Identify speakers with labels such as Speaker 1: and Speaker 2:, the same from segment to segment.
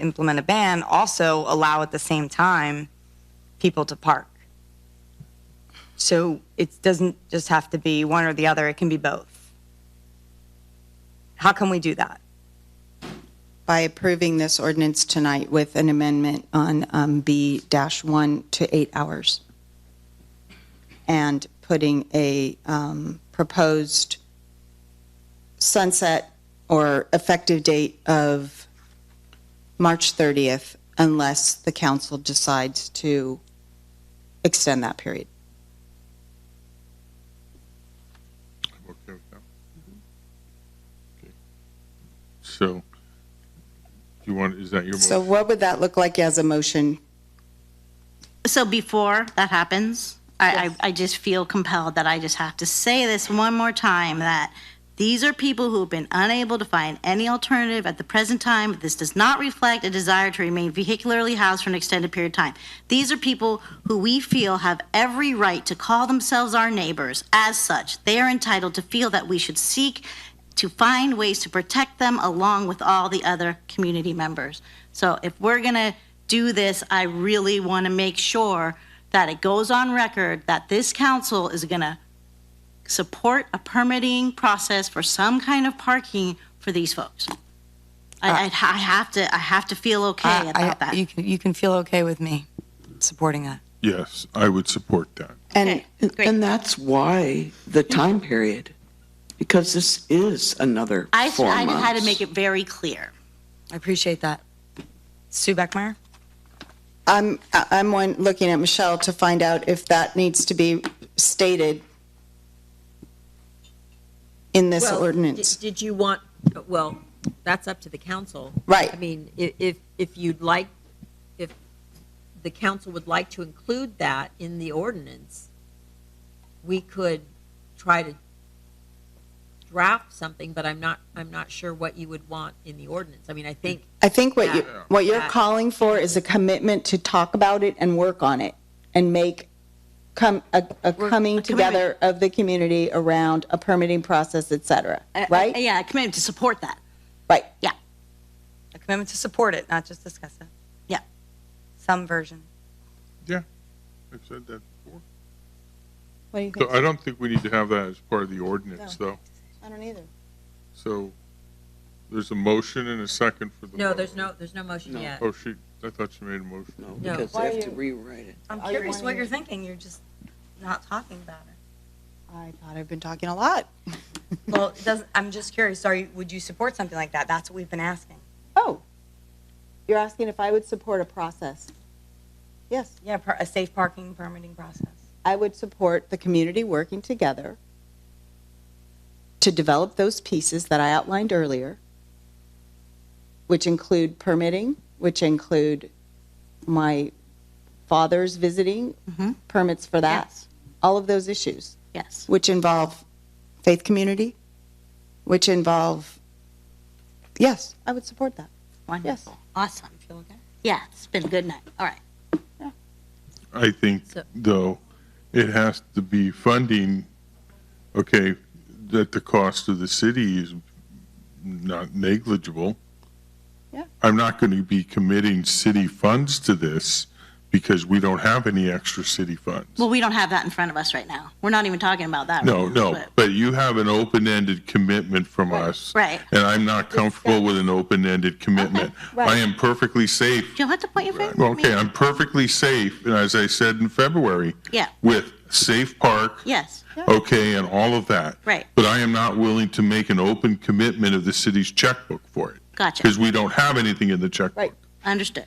Speaker 1: implement a ban, also allow at the same time people to park. So it doesn't just have to be one or the other, it can be both. How can we do that?
Speaker 2: by approving this ordinance tonight with an amendment on um, B-1 to eight hours, and putting a um, proposed sunset or effective date of March 30th, unless the council decides to extend that period.
Speaker 3: I'm okay with that. Okay. So, you want, is that your
Speaker 2: So
Speaker 3: motion?
Speaker 2: what would that look like as a motion?
Speaker 4: So before that happens, I, I, I just feel compelled that I just have to say this one more time, that these are people who have been unable to find any alternative at the present time. This does not reflect a desire to remain vehicularly housed for an extended period of time. These are people who we feel have every right to call themselves our neighbors. As such, they are entitled to feel that we should seek to find ways to protect them along with all the other community members. So if we're going to do this, I really want to make sure that it goes on record that this council is going to support a permitting process for some kind of parking for these folks. I, I'd ha- I have to, I have to feel okay
Speaker 1: Uh, I- I-
Speaker 4: about that.
Speaker 1: You can, you can feel okay with me supporting that.
Speaker 3: Yes, I would support that.
Speaker 2: And
Speaker 4: Okay,
Speaker 5: And-
Speaker 4: great. Mm-hmm.
Speaker 5: And that's why the time period, because this is another
Speaker 4: I,
Speaker 5: four
Speaker 4: I had to
Speaker 5: months.
Speaker 4: make it very clear.
Speaker 1: I appreciate that. Sue Beckmeyer?
Speaker 2: I'm, I- I'm one, looking at Michelle to find out if that needs to be stated in this
Speaker 6: Well,
Speaker 2: ordinance.
Speaker 6: did- Did you want, well, that's up to the council.
Speaker 2: Right.
Speaker 6: I mean, i- if, if you'd like, if the council would like to include that in the ordinance, we could try to draft something, but I'm not, I'm not sure what you would want in the ordinance. I mean, I think,
Speaker 2: I think what you,
Speaker 6: Yeah.
Speaker 2: what you're
Speaker 6: Yeah.
Speaker 2: calling for is a commitment to talk about it and work on it and make, come, a, a coming together of the community around a permitting process, et cetera,
Speaker 4: I- I-
Speaker 2: right?
Speaker 4: Uh, Yeah, I committed to support that.
Speaker 2: Right.
Speaker 1: A commitment to support it, not just discuss it.
Speaker 4: Yeah.
Speaker 1: Some version.
Speaker 3: I've said that before.
Speaker 2: What do you
Speaker 3: So
Speaker 2: think?
Speaker 3: I don't think we need to have that as part of the ordinance, though.
Speaker 2: I don't either.
Speaker 3: So, there's a motion and a second for the.
Speaker 6: no, there's no, there's no motion
Speaker 5: No.
Speaker 6: yet.
Speaker 3: Oh, she, I thought she made a motion.
Speaker 5: No,
Speaker 6: No.
Speaker 5: because
Speaker 2: Why
Speaker 5: they
Speaker 2: are
Speaker 5: have to
Speaker 2: you-
Speaker 5: rewrite it.
Speaker 1: I'm
Speaker 2: Are you
Speaker 1: curious what
Speaker 2: wanting-
Speaker 1: you're thinking. You're just not talking about it.
Speaker 2: I thought I've been talking a lot.
Speaker 1: Well, it doesn't, I'm just curious. Are you, would you support something like that? That's what we've been asking.
Speaker 2: Oh, you're asking if I would support a process? Yes.
Speaker 1: Yeah, per- a safe parking permitting process.
Speaker 2: I would support the community working together to develop those pieces that I outlined earlier, which include permitting, which include my father's visiting,
Speaker 4: Mhm.
Speaker 2: permits for that,
Speaker 4: Yes.
Speaker 2: all of those issues,
Speaker 4: Yes.
Speaker 2: which involve faith community, which involve, yes, I would support that.
Speaker 4: Wonderful. Awesome. Yeah, it's been a good night. All right.
Speaker 3: I think,
Speaker 6: So-
Speaker 3: though, it has to be funding, okay, that the cost of the city is not negligible.
Speaker 2: Yeah.
Speaker 3: I'm not going to be committing city funds to this because we don't have any extra city funds.
Speaker 4: Well, we don't have that in front of us right now. We're not even talking about that.
Speaker 3: No,
Speaker 4: right now,
Speaker 3: no,
Speaker 4: but-
Speaker 3: but you have an open-ended commitment from us.
Speaker 4: Right.
Speaker 3: And I'm not comfortable with an open-ended commitment.
Speaker 2: right.
Speaker 3: I am perfectly safe
Speaker 4: You'll have to point your finger at
Speaker 3: Well,
Speaker 4: me.
Speaker 3: okay, I'm perfectly safe, and as I said in February.
Speaker 4: Yeah.
Speaker 3: With Safe Park.
Speaker 4: Yes.
Speaker 3: Okay, and all of that.
Speaker 4: Right.
Speaker 3: But I am not willing to make an open commitment of the city's checkbook for it,
Speaker 4: Gotcha.
Speaker 3: because we don't have anything in the checkbook.
Speaker 2: Right.
Speaker 4: Understood.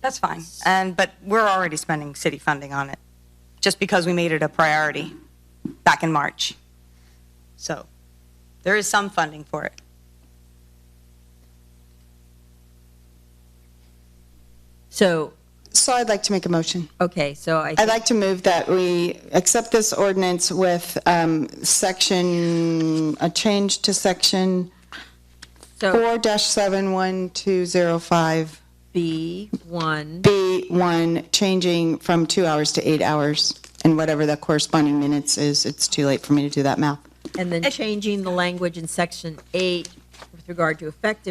Speaker 1: That's fine. And, but we're already spending city funding on it, just because we made it a priority back in March. So there is some funding for it.
Speaker 6: So,
Speaker 2: So I'd like to make a motion.
Speaker 6: okay, so I,
Speaker 2: I'd
Speaker 6: think-
Speaker 2: like to move that we accept this ordinance with um, section, a change to section
Speaker 6: so
Speaker 2: 4-71205B1,
Speaker 6: B1,
Speaker 2: changing from two hours to eight hours, and whatever the corresponding minutes is, it's too late for me to do that math.
Speaker 6: and then changing the language in section 8 with regard to effective